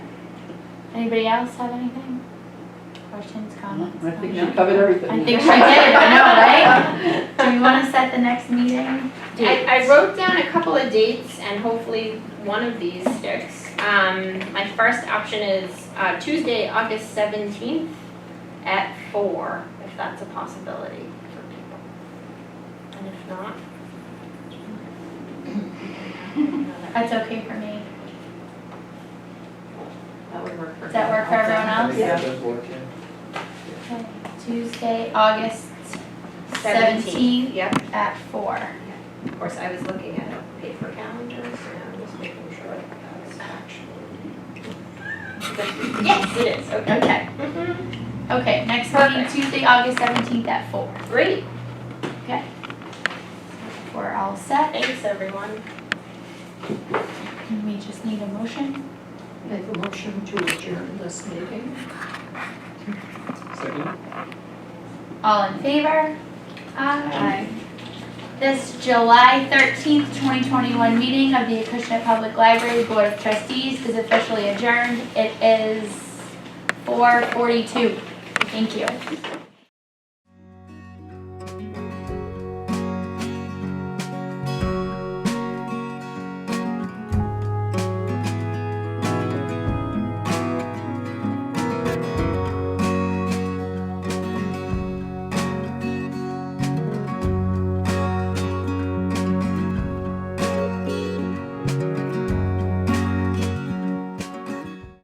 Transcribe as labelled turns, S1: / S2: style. S1: Anybody else have anything? Questions, comments?
S2: I think she
S1: comments?
S2: covered everything.
S1: I think she did, I know, right? Do you wanna set the next meeting?
S3: I, I wrote down a couple of dates and hopefully one of these sticks. Um, my first option is uh, Tuesday, August seventeenth at four, if that's a possibility for people. And if not.
S1: That's okay for me.
S4: That would work for.
S1: Does that work for everyone else?
S2: Yeah.
S1: Okay, Tuesday, August
S3: Seventeenth,
S1: seventeenth
S3: yep.
S1: at four.
S3: Of course, I was looking at a paper calendar, so I'm just making sure that was actually. Yes, it is, okay. Mhm.
S1: Okay, next meeting,
S3: Perfect.
S1: Tuesday, August seventeenth at four.
S3: Great,
S1: We're all set,
S3: thanks, everyone.
S1: and we just need a motion.
S4: Make a motion to adjourn this meeting.
S5: Second?
S1: All in favor? This July thirteenth, twenty twenty-one meeting of the Acushnet Public Library Board of Trustees is officially adjourned. It is four forty-two. Thank you.